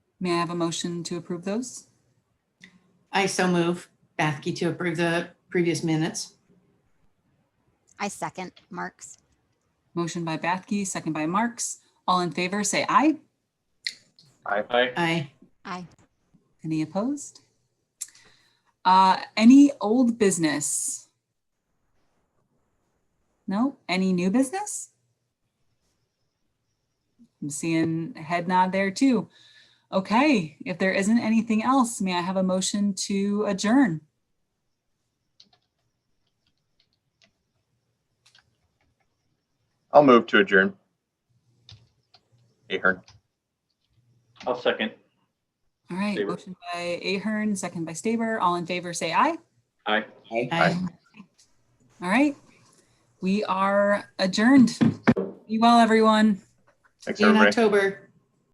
May I have a motion to approve those? I so move Bathke to approve the previous minutes. I second Mark's. Motion by Bathke, second by Marks. All in favor, say aye. Aye. I, Aye. Any opposed? Uh, any old business? No, any new business? I'm seeing a head nod there too. Okay, if there isn't anything else, may I have a motion to adjourn? I'll move to adjourn. Ahern. I'll second. All right, Staber. motion by Ahern, second by Staber. All in favor, say aye. Aye. I, All right, we are adjourned. Be well, everyone. Thanks, see you in everybody. October.